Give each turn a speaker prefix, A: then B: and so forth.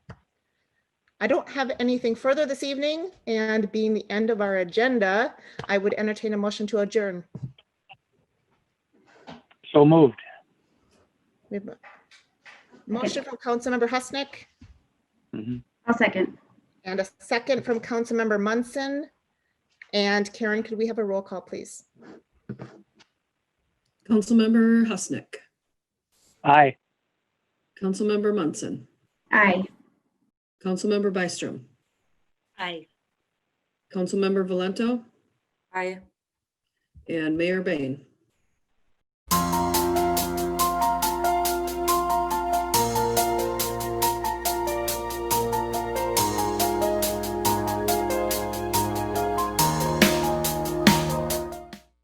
A: I don't have anything further this evening, and being the end of our agenda, I would entertain a motion to adjourn.
B: So moved.
A: We have a Motion from Councilmember Husnick
B: Mhm.
C: I'll second.
A: and a second from Councilmember Munson. And Karen, could we have a roll call, please?
D: Councilmember Husnick,
B: Aye.
D: Councilmember Munson,
C: Aye.
D: Councilmember Byström,
E: Aye.
D: Councilmember Valento,
E: Aye.
D: and Mayor Bain.